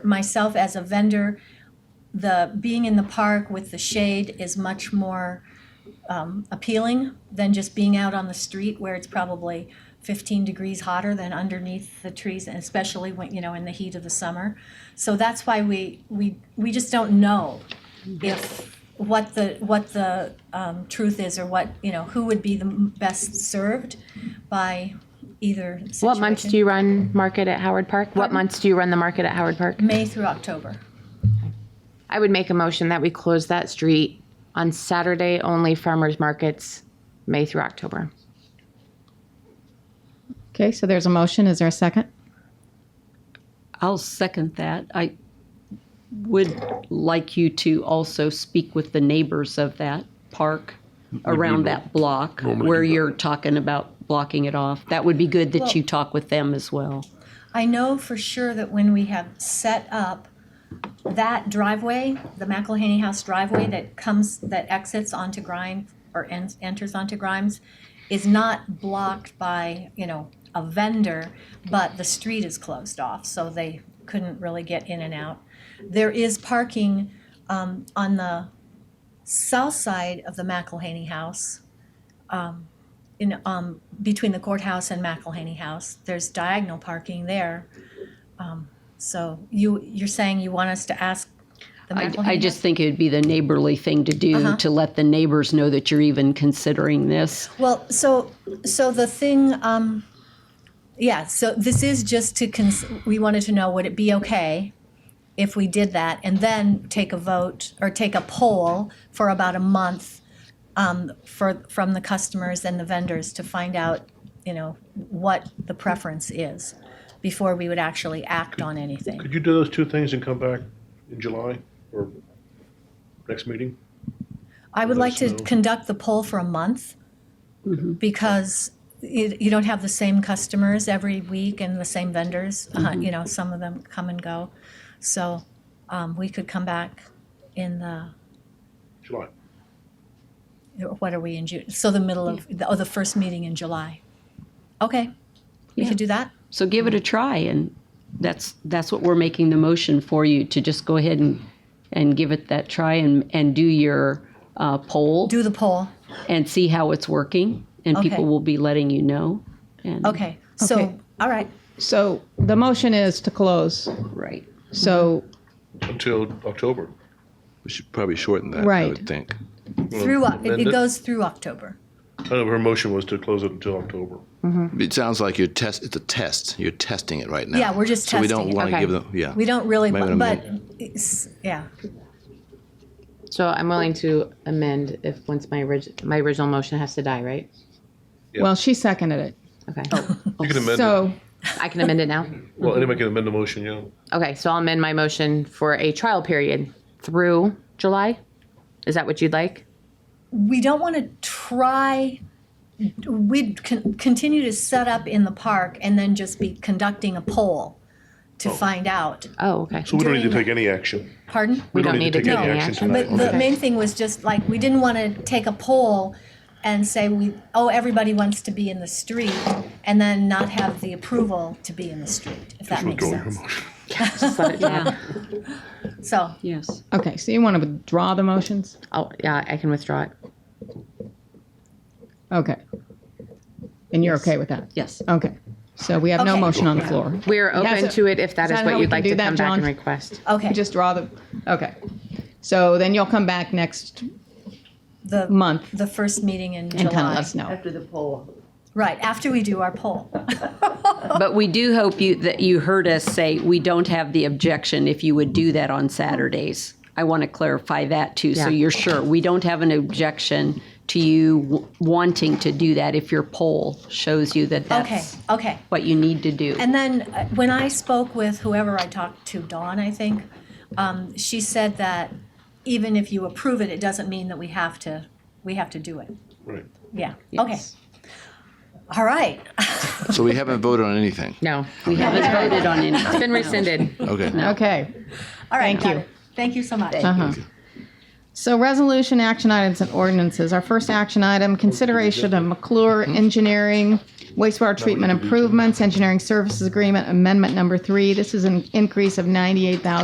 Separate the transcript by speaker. Speaker 1: myself as a vendor, the being in the park with the shade is much more um, appealing than just being out on the street where it's probably 15 degrees hotter than underneath the trees, and especially when you know in the heat of the summer. So that's why we we we just don't know if what the what the um, truth is or what you know who would be the m- best served by either situation.
Speaker 2: What months do you run market at Howard Park? What
Speaker 1: Pardon?
Speaker 2: months do you run the market at Howard Park?
Speaker 1: May through October.
Speaker 2: I would make a motion that we close that street on Saturday only farmers markets, May through October.
Speaker 3: Okay, so there's a motion. Is there a second?
Speaker 4: I'll second that. I would like you to also speak with the neighbors of that park around that block where you're talking about blocking it off. That would be good that you talk with them as well.
Speaker 1: I know for sure that when we have set up that driveway, the McElhaney House driveway that comes, that exits onto Grimes or en- enters onto Grimes is not blocked by, you know, a vendor, but the street is closed off, so they couldn't really get in and out. There is parking um, on the south side of the McElhaney House in um between the courthouse and McElhaney House. There's diagonal parking there. Um, so you you're saying you want us to ask the
Speaker 4: I,
Speaker 1: McElhaney?
Speaker 4: I just think it would be the neighborly thing to do to let the neighbors know that you're even considering this.
Speaker 1: House? well, so so the thing um, yeah. So this is just to cons- we wanted to know would it be okay if we did that and then take a vote or take a poll for about a month um, for from the customers and the vendors to find out you know what the preference is before we would actually act on anything
Speaker 5: Could you do those two things and come back in July or next meeting?
Speaker 1: i would like
Speaker 5: let us
Speaker 1: to
Speaker 5: know. Mm-hmm.
Speaker 1: conduct the poll for a month because you, you don't have the same customers every week and the same vendors uh,
Speaker 5: Mm-hmm.
Speaker 1: you know some of them come and go so um, we could come back in the
Speaker 5: July.
Speaker 1: what are we in June? So the middle of, the- oh, the first meeting in July. Okay, we could do that?
Speaker 4: So give it a try and that's, that's what we're making the motion for you to just go ahead and, and give it that try and, and do your uh, poll.
Speaker 1: Do the poll.
Speaker 4: and see how it's working, and
Speaker 1: Okay.
Speaker 4: people will be letting you know. And,
Speaker 1: Okay, so,
Speaker 3: Okay.
Speaker 1: all right.
Speaker 3: So the motion is to close.
Speaker 4: Right.
Speaker 3: So,
Speaker 5: Until October.
Speaker 6: We should probably shorten that, I
Speaker 3: Right.
Speaker 6: would think.
Speaker 1: Through, Oc- it-
Speaker 5: amend
Speaker 1: it
Speaker 5: it?
Speaker 1: goes through October.
Speaker 5: I know her motion was to close it until October.
Speaker 6: It sounds like you're test, it's a test. You're testing it right now.
Speaker 1: Yeah, we're just
Speaker 6: So we
Speaker 1: testing
Speaker 6: don't
Speaker 1: it.
Speaker 6: want to
Speaker 2: Okay.
Speaker 6: give them, yeah.
Speaker 1: We don't really,
Speaker 6: Might wanna
Speaker 1: bu- but,
Speaker 6: amend
Speaker 1: it's- yeah,
Speaker 2: So I'm willing to amend if, once my orig, my original motion has to die, right?
Speaker 5: Yeah.
Speaker 3: well, she seconded it.
Speaker 2: Okay.
Speaker 5: You
Speaker 1: Oh,
Speaker 5: can amend it.
Speaker 3: So,
Speaker 2: I can amend it now?
Speaker 5: Well, anybody can amend the motion, yeah.
Speaker 2: Okay, so I'll amend my motion for a trial period through July? Is that what you'd like?
Speaker 1: we don't want to try, we'd con- continue to set up in the park and then just be conducting a poll to find out.
Speaker 2: Oh, okay.
Speaker 5: So we don't need to
Speaker 1: During-
Speaker 5: take any action.
Speaker 1: Pardon?
Speaker 2: We don't need to
Speaker 5: take
Speaker 2: take
Speaker 5: any
Speaker 2: any
Speaker 5: action
Speaker 2: action.
Speaker 5: tonight.
Speaker 1: But the
Speaker 2: Okay.
Speaker 1: main thing was just like, we didn't want to take a poll and say we, oh, everybody wants to be in the street, and then not have the approval to be in the street, if that makes
Speaker 5: Withdraw your
Speaker 1: sense.
Speaker 5: motion.
Speaker 2: Just let it die.
Speaker 1: So,
Speaker 4: Yes.
Speaker 3: okay, so you want to withdraw the motions?
Speaker 2: Oh, yeah, I can withdraw it.
Speaker 3: Okay. And you're okay with that?
Speaker 4: Yes.
Speaker 3: Okay. So we have no
Speaker 1: Okay.
Speaker 3: motion on the floor.
Speaker 2: We're open
Speaker 3: so-
Speaker 2: to it if that
Speaker 3: is
Speaker 2: is
Speaker 3: that how
Speaker 2: what
Speaker 3: we
Speaker 2: you'd
Speaker 3: can
Speaker 2: like
Speaker 3: do
Speaker 2: to
Speaker 3: that,
Speaker 2: come back and
Speaker 3: John?
Speaker 2: request.
Speaker 1: okay,
Speaker 3: We just draw the, okay. So then you'll come back next
Speaker 1: the,
Speaker 3: month
Speaker 1: the first meeting in
Speaker 3: and kind of let
Speaker 1: July.
Speaker 3: us know.
Speaker 1: Right, after we do our poll.
Speaker 4: But we do hope you that you heard us say we don't have the objection if you would do that on Saturdays. I want to clarify that too,
Speaker 2: Yeah.
Speaker 4: so you're sure we don't have an objection to you w- wanting to do that if your poll shows you that that's
Speaker 1: Okay, okay.
Speaker 4: what you need to do.
Speaker 1: And then uh, when I spoke with whoever I talked to, Dawn, I think, um, she said that even if you approve it, it doesn't mean that we have to, we have to do it.
Speaker 5: Right.
Speaker 1: Yeah, okay. All right,
Speaker 6: So we haven't voted on anything.
Speaker 2: No, we
Speaker 4: I
Speaker 2: have
Speaker 4: haven't voted on anything.
Speaker 2: been rescinded.
Speaker 6: Okay.
Speaker 3: Okay.
Speaker 1: all right.
Speaker 3: Thank
Speaker 1: got
Speaker 3: you.
Speaker 1: it. Thank you so much.
Speaker 3: Uh-huh. So resolution, action items, and ordinances. Our first action item, consideration of McClure Engineering Wastewater treatment improvements, engineering services agreement, amendment number three. This is an increase of ninety-eight thousand.